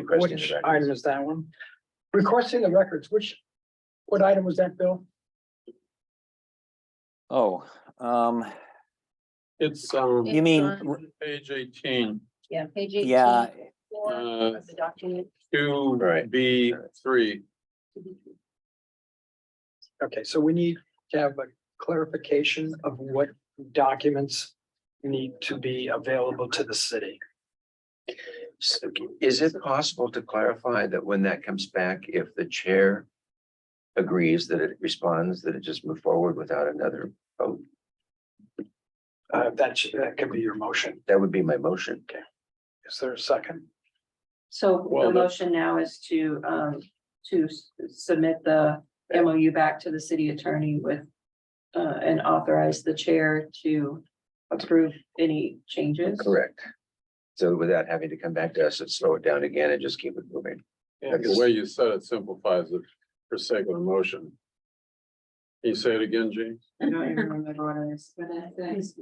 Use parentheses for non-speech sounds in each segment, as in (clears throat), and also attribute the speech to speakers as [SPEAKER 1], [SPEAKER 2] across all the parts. [SPEAKER 1] requesting
[SPEAKER 2] Which
[SPEAKER 1] the records.
[SPEAKER 2] item is that one? Requesting the records, which, what item was that, Bill?
[SPEAKER 3] Oh, um,
[SPEAKER 4] It's, um,
[SPEAKER 3] you mean,
[SPEAKER 5] on-
[SPEAKER 3] r-
[SPEAKER 4] page eighteen,
[SPEAKER 5] Yeah, page eighteen.
[SPEAKER 3] yeah,
[SPEAKER 5] four
[SPEAKER 4] Uh,
[SPEAKER 5] of The document.
[SPEAKER 4] two
[SPEAKER 1] Right.
[SPEAKER 4] B three.
[SPEAKER 2] Okay, so we need to have a clarification of what documents need to be available to the city.
[SPEAKER 1] So Is it possible to clarify that when that comes back, if the chair agrees that it responds, that it just move forward without another vote?
[SPEAKER 2] Uh, that should, that could be your motion.
[SPEAKER 1] That would be my motion.
[SPEAKER 2] Is there a second?
[SPEAKER 5] So
[SPEAKER 4] Well,
[SPEAKER 5] the
[SPEAKER 4] the-
[SPEAKER 5] motion now is to, um, to s- submit the MOU back to the city attorney with. Uh, and authorize the chair to approve any changes.
[SPEAKER 1] Correct. So without having to come back to us and slow it down again and just keep it moving.
[SPEAKER 4] And the
[SPEAKER 1] Yes.
[SPEAKER 4] way you said it simplifies it for sake of emotion. Can you say it again, Gene?
[SPEAKER 5] I don't even remember what it is.
[SPEAKER 6] is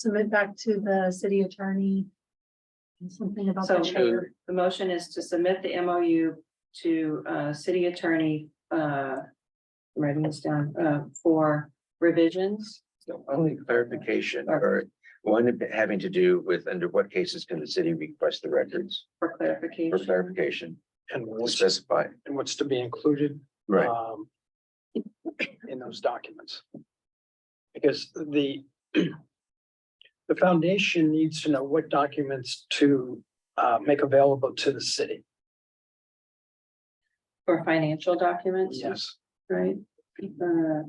[SPEAKER 6] submit back to the city attorney. and Something about
[SPEAKER 5] So
[SPEAKER 6] the
[SPEAKER 5] the
[SPEAKER 6] chair.
[SPEAKER 5] motion is to submit the MOU to uh city attorney uh. I'm Writing this down uh for revisions.
[SPEAKER 1] So Only clarification or one having to do with under what cases can the city request the records
[SPEAKER 5] For
[SPEAKER 1] for
[SPEAKER 5] clarification.
[SPEAKER 1] clarification,
[SPEAKER 2] And
[SPEAKER 1] to
[SPEAKER 2] what's,
[SPEAKER 1] specify.
[SPEAKER 2] and what's to be included
[SPEAKER 1] Right.
[SPEAKER 2] um, in those documents. Because the, (clears throat) the foundation needs to know what documents to uh, make available to the city.
[SPEAKER 5] For financial documents,
[SPEAKER 2] Yes.
[SPEAKER 5] right? Uh,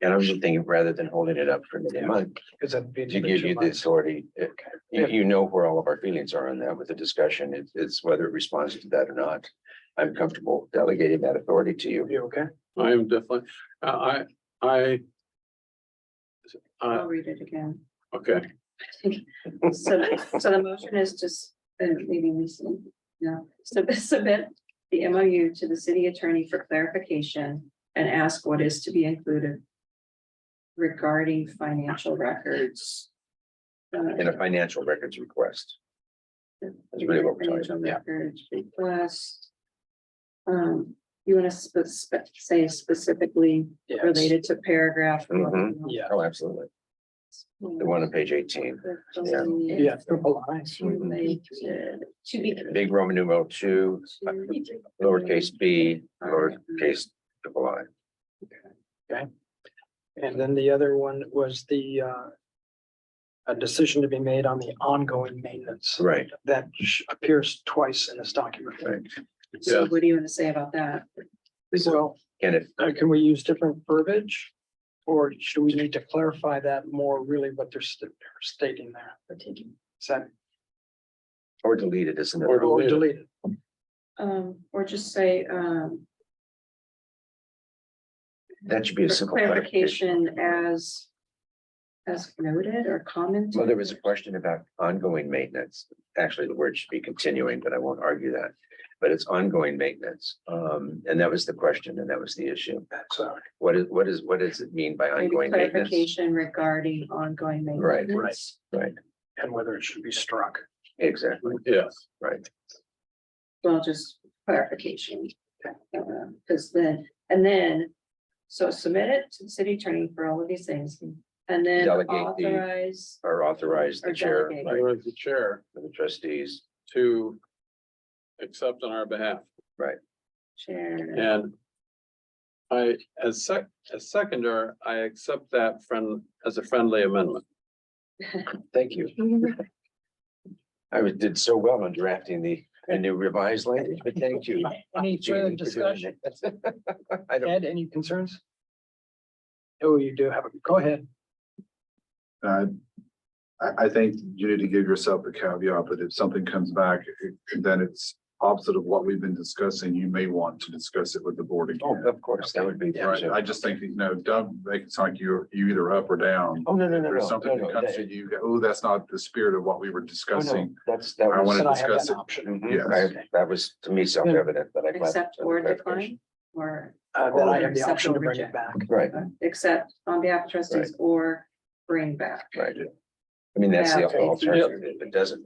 [SPEAKER 1] And I was just thinking, rather than holding it up for another month,
[SPEAKER 2] Because that'd be.
[SPEAKER 1] to give you the authority, it- you, you know where all of our feelings are on that with the discussion. It's, it's whether it responds to that or not. I'm comfortable delegating that authority to you.
[SPEAKER 2] You okay?
[SPEAKER 4] I am definitely, I, I, I. Uh,
[SPEAKER 5] I'll read it again.
[SPEAKER 4] okay,
[SPEAKER 5] So, so the motion is just, uh, maybe we see, no, so submit the MOU to the city attorney for clarification and ask what is to be included regarding financial records. Uh,
[SPEAKER 1] In a financial records request. That's really what we're talking
[SPEAKER 5] Financial
[SPEAKER 1] about, yeah.
[SPEAKER 5] records request. Um, you want to spe- spe- say specifically
[SPEAKER 2] Yes.
[SPEAKER 5] related to paragraph.
[SPEAKER 1] Mhm.
[SPEAKER 5] one?
[SPEAKER 2] Yeah.
[SPEAKER 1] Oh, absolutely. The one on page eighteen, yeah.
[SPEAKER 2] Yeah, triple I.
[SPEAKER 5] Related
[SPEAKER 6] To be.
[SPEAKER 1] big Roman numeral two, lowercase b, lowercase double i.
[SPEAKER 2] And then the other one was the uh, a decision to be made on the ongoing maintenance.
[SPEAKER 1] Right.
[SPEAKER 2] That sh- appears twice in this document.
[SPEAKER 1] Right.
[SPEAKER 5] So what do you want to say about that?
[SPEAKER 2] So
[SPEAKER 1] Can it,
[SPEAKER 2] uh, can we use different verbiage? Or should we need to clarify that more really what they're st- they're stating there? Is that
[SPEAKER 1] or delete it is
[SPEAKER 4] Or
[SPEAKER 1] another,
[SPEAKER 2] or
[SPEAKER 4] delete it.
[SPEAKER 2] deleted?
[SPEAKER 5] Um, or just say, um,
[SPEAKER 1] that should be a
[SPEAKER 5] for
[SPEAKER 1] simple clarification.
[SPEAKER 5] clarification as. As noted or commented.
[SPEAKER 1] Well, there was a question about ongoing maintenance. Actually, the word should be continuing, but I won't argue that. But it's ongoing maintenance. Um, and that was the question and that was the issue.
[SPEAKER 2] So,
[SPEAKER 1] What is, what is, what does it mean by
[SPEAKER 5] Maybe
[SPEAKER 1] ongoing maintenance?
[SPEAKER 5] clarification regarding ongoing
[SPEAKER 1] Right,
[SPEAKER 5] maintenance.
[SPEAKER 2] right.
[SPEAKER 1] Right,
[SPEAKER 2] and whether it should be struck.
[SPEAKER 1] exactly,
[SPEAKER 4] yes,
[SPEAKER 1] right.
[SPEAKER 5] Well, just clarification. Because then, and then, so submit it to the city attorney for all of these things, and then
[SPEAKER 1] Delegate the-
[SPEAKER 5] authorize.
[SPEAKER 1] Or authorize the
[SPEAKER 5] Or
[SPEAKER 1] chair,
[SPEAKER 5] delegate.
[SPEAKER 1] right,
[SPEAKER 4] authorize the chair
[SPEAKER 1] for the trustees.
[SPEAKER 4] to accept on our behalf.
[SPEAKER 5] Chair.
[SPEAKER 4] And I, as sec, as seconder, I accept that friend, as a friendly amendment.
[SPEAKER 1] Thank you. I was, did so well on drafting the, the new revised language, but thank you.
[SPEAKER 2] Any further
[SPEAKER 1] Jeannie, for doing
[SPEAKER 2] discussion?
[SPEAKER 1] that. (laughs) I don't,
[SPEAKER 2] Ed, any concerns? Oh, you do have, a go ahead.
[SPEAKER 7] Uh, I, I think you need to give yourself the caveat that if something comes back, then it's opposite of what we've been discussing, you may want to discuss it with the board
[SPEAKER 1] oh,
[SPEAKER 7] again.
[SPEAKER 1] of course, that would be.
[SPEAKER 7] Right, I just think, you know, don't make it sound like you're, you either up or down.
[SPEAKER 1] Oh, no, no, no, no,
[SPEAKER 7] There's
[SPEAKER 1] no,
[SPEAKER 7] something
[SPEAKER 1] no.
[SPEAKER 7] that comes
[SPEAKER 1] that-
[SPEAKER 7] to you, go, oh, that's not the spirit of what we were
[SPEAKER 1] Oh, no,
[SPEAKER 7] discussing.
[SPEAKER 1] That's, that
[SPEAKER 7] I
[SPEAKER 1] was,
[SPEAKER 7] wanna
[SPEAKER 2] Said I have
[SPEAKER 7] discuss
[SPEAKER 2] that
[SPEAKER 7] it.
[SPEAKER 2] option.
[SPEAKER 5] Mm-hmm.
[SPEAKER 1] Mhm,
[SPEAKER 7] yes.
[SPEAKER 1] I- that was to me self-evident, but I'm glad
[SPEAKER 5] Accept
[SPEAKER 1] for the
[SPEAKER 5] or
[SPEAKER 1] clarification.
[SPEAKER 5] decline, or
[SPEAKER 2] Uh, Then I
[SPEAKER 5] Or
[SPEAKER 2] have the
[SPEAKER 5] accept
[SPEAKER 2] option
[SPEAKER 5] or
[SPEAKER 2] to bring it
[SPEAKER 5] reject.
[SPEAKER 2] back.
[SPEAKER 1] Right,
[SPEAKER 5] accept on behalf of trustees or bring back.
[SPEAKER 1] right. I mean, that's the
[SPEAKER 5] Yeah.
[SPEAKER 1] alternative. If it doesn't